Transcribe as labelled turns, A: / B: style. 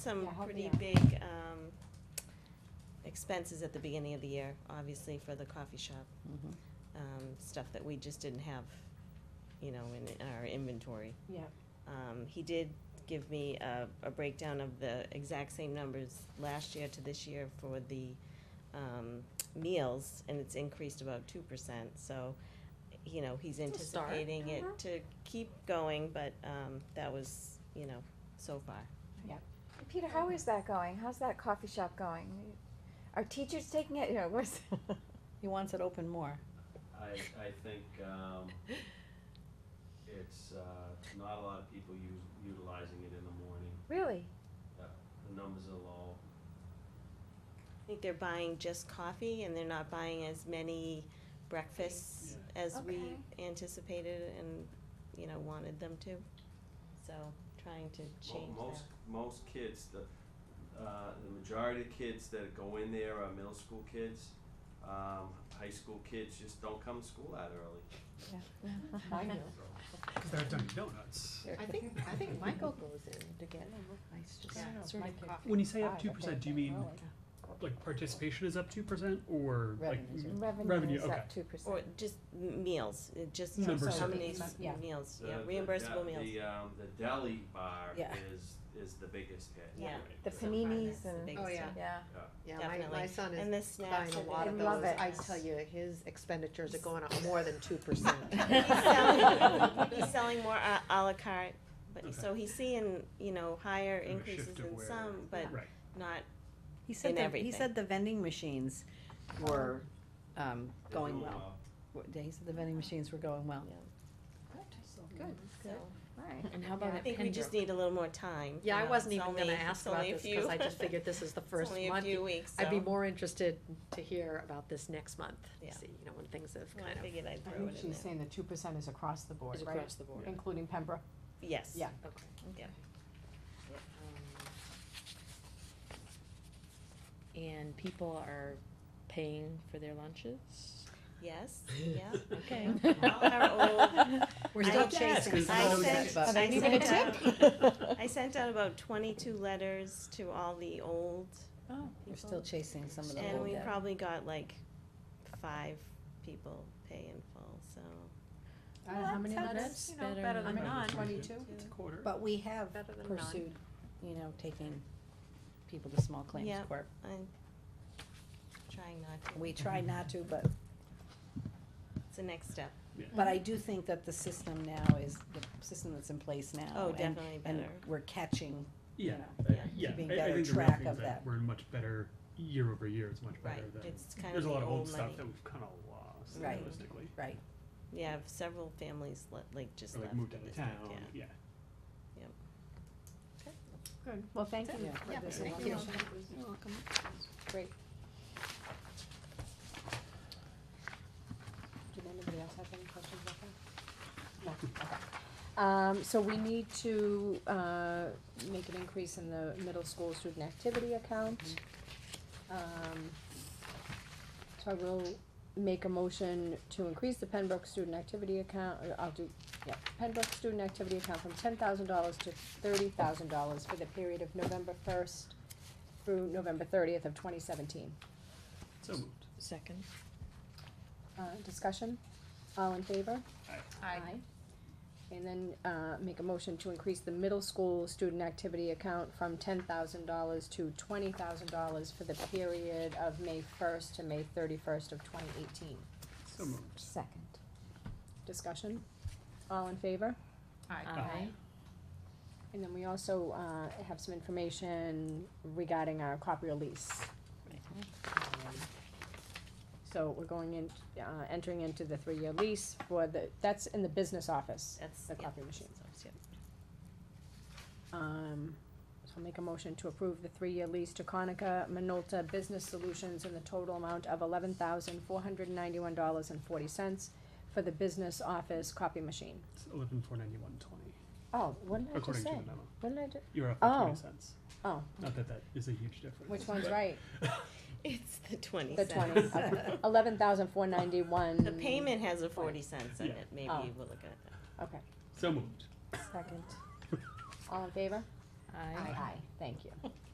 A: some
B: Yeah, help me
A: pretty
B: out.
A: big um, expenses at the beginning of the year, obviously for the coffee shop,
C: Mm-hmm.
A: um, stuff that we just didn't have, you know, in in our inventory.
B: Yeah,
A: Um, He did give me a a breakdown of the exact same numbers last year to this year for the um, meals, and it's increased about two percent, so, you know, he's
C: It's a start.
A: anticipating it
C: Mhm.
A: to keep going, but um, that was, you know, so far.
D: Peter, how is that going? How's that coffee shop going? Are teachers taking it? You know, what's
C: He wants it open more.
E: I, I think, um, it's, uh, not a lot of people use, utilizing it in the morning,
D: really?
E: the numbers are low.
A: I think they're buying just coffee and they're not buying as many breakfasts as we anticipated and, you know, wanted them to. So trying to
E: Mo-
A: change
E: Most, most kids, the, uh, the majority of kids that go in there are middle school kids, um, high school kids just don't come to school that early.
B: I do.
F: Because they're Dunkin' Donuts.
C: I think, I think Michael goes in to get
B: Yeah,
C: sort
B: my
C: of
B: kid-
C: coffee.
F: When you say
B: Ah,
F: up two
B: okay.
F: percent, do you mean like participation is up two percent or like?
C: Revenues
F: m-
D: Revenue,
F: Revenue,
D: is
F: okay.
D: up two
A: that. Or
D: percent.
A: just m- meals, uh, just
F: Yeah, Number
A: how
F: so
A: many
B: it's
A: s-
B: not- yeah.
A: meals, yeah,
E: The- the
A: reimbursable
E: de-
A: meals.
E: The, um, the deli bar
C: Yeah.
E: is, is the biggest hit.
A: Yeah.
D: The
E: Right.
D: paninis
A: the
D: and
A: biggest
G: Oh, yeah.
A: one.
D: yeah.
G: Yeah, my, my
A: Definitely.
G: son
A: And
G: is
A: the
G: buying
A: snacks.
G: a
A: are
G: lot of
A: good.
D: I love
G: those.
D: it.
G: I tell you, his expenditures are going up more than two percent.
A: He's selling, he's selling more a à la carte, but,
F: Okay.
A: so he's seeing, you know, higher
F: Kind of a
A: increases
F: shift of
A: in
F: where-
A: some, but
F: Right.
A: not
C: He
A: in
C: said, the- he
A: everything.
C: said the vending machines were, um,
E: They're
C: going
E: doing
C: well. What- He said the vending machines were going well.
G: Good.
A: so.
D: All right.
C: And how
G: about
A: I think we just need a little more time.
G: Yeah,
A: you
G: I
A: know,
G: wasn't
A: it's
G: even
A: only-
G: gonna
A: it's
G: ask about
A: only a
G: this, cause I
A: few-
G: just figured this is the first
A: It's only a
G: month.
A: few weeks, so.
G: I'd be more interested to hear about this next month,
A: Yeah.
G: to see, you know, when things have
A: Well,
G: kind
A: I
G: of,
A: figured I'd
B: I
A: throw
B: think
A: it in
B: she's
A: there.
B: saying the two percent is across the board,
G: is
B: right?
G: across the board.
B: Including Pembroke.
A: Yes.
B: Yeah.
G: Okay.
A: Yeah.
H: Um, And people are paying for their lunches?
A: Yes, yeah.
H: Okay.
A: All our old,
G: We're
A: I
G: still
A: have to
F: ask,
G: chasing.
F: 'cause
G: some
F: I
G: of those
F: said-
G: things.
C: But-
A: I
B: need
A: sent
B: a
A: out, I sent out about twenty-two letters to all the old
C: Oh, we're still
A: people.
C: chasing some of the
A: And
C: old
A: we
C: debt.
A: probably got like five people pay in full, so.
B: I don't know, how many
H: that's-
B: letters?
H: you know, better better
B: than
H: than
B: none.
H: none.
B: Twenty-two?
F: It's a quarter.
C: But we have
G: Better than none.
C: pursued, you know, taking people to small claims
A: Yeah.
C: court.
A: I'm trying not to.
C: We try not to, but
A: It's the next step.
C: But I do think that the system now is, the system that's in place now.
A: Oh,
C: and-
A: definitely
C: And
A: better.
C: we're catching, you
F: Yeah,
C: know.
F: I-
A: Yeah.
F: yeah.
C: Keeping
F: I- I
C: better
F: think the real
C: track
F: thing is
C: of that.
F: We're in much better, year over year, it's much better
A: Right,
F: than,
A: it's kind of
F: there's a
A: the
F: lot of old
A: old money.
F: stuff that we've kind of lost
C: Right.
F: realistically.
C: right,
A: Yeah, several families le- like just
F: Or
A: left.
F: like moved
A: the
F: out of
A: district,
F: town,
A: yeah.
F: yeah.
B: Good, well, thank you.
C: Yeah.
B: for
C: Yeah,
B: this
C: thank
B: information.
C: You're welcome.
B: Did anybody else have any questions about that? No. Um, so we need to, uh, make an increase in the middle school student activity account. Um, so I will make a motion to increase the Pembroke student activity account, or I'll do, yeah, Pembroke student activity account from ten thousand dollars to thirty thousand dollars for the period of November first through November thirtieth of twenty seventeen.
F: So moved.
H: Second.
B: Uh, discussion? All in favor?
G: Aye.
B: And then, uh, make a motion to increase the middle school student activity account from ten thousand dollars to twenty thousand dollars for the period of May first to May thirty-first of twenty eighteen.
F: So moved.
B: Second. Discussion? All in favor?
H: Aye.
B: And then we also, uh, have some information regarding our copier lease. Um, So we're going in, uh, entering into the three-year lease for the, that's in the business office.
A: That's,
B: The
A: yeah.
B: copy machines. Um, so I'll make a motion to approve the three-year lease to Conica Minolta Business Solutions in the total amount of eleven thousand four hundred ninety-one dollars and forty cents for the business office copy machine.
F: It's eleven four ninety-one twenty,
B: Oh, what did I just
F: according to
B: say?
F: the memo.
B: What did I do?
F: You're up by
B: Oh.
F: twenty cents.
B: Oh,
F: Not that that is a huge difference.
B: which one's
F: but-
B: right?
A: It's the twenty
B: The
A: cents.
B: twenty, eleven thousand four ninety-one.
A: The payment has a forty cents in
F: Yeah.
A: it, maybe
B: Oh.
A: we'll look at that.
B: Okay,
F: So moved.
B: second. All in favor?
I: Aye.
C: Aye. Thank you.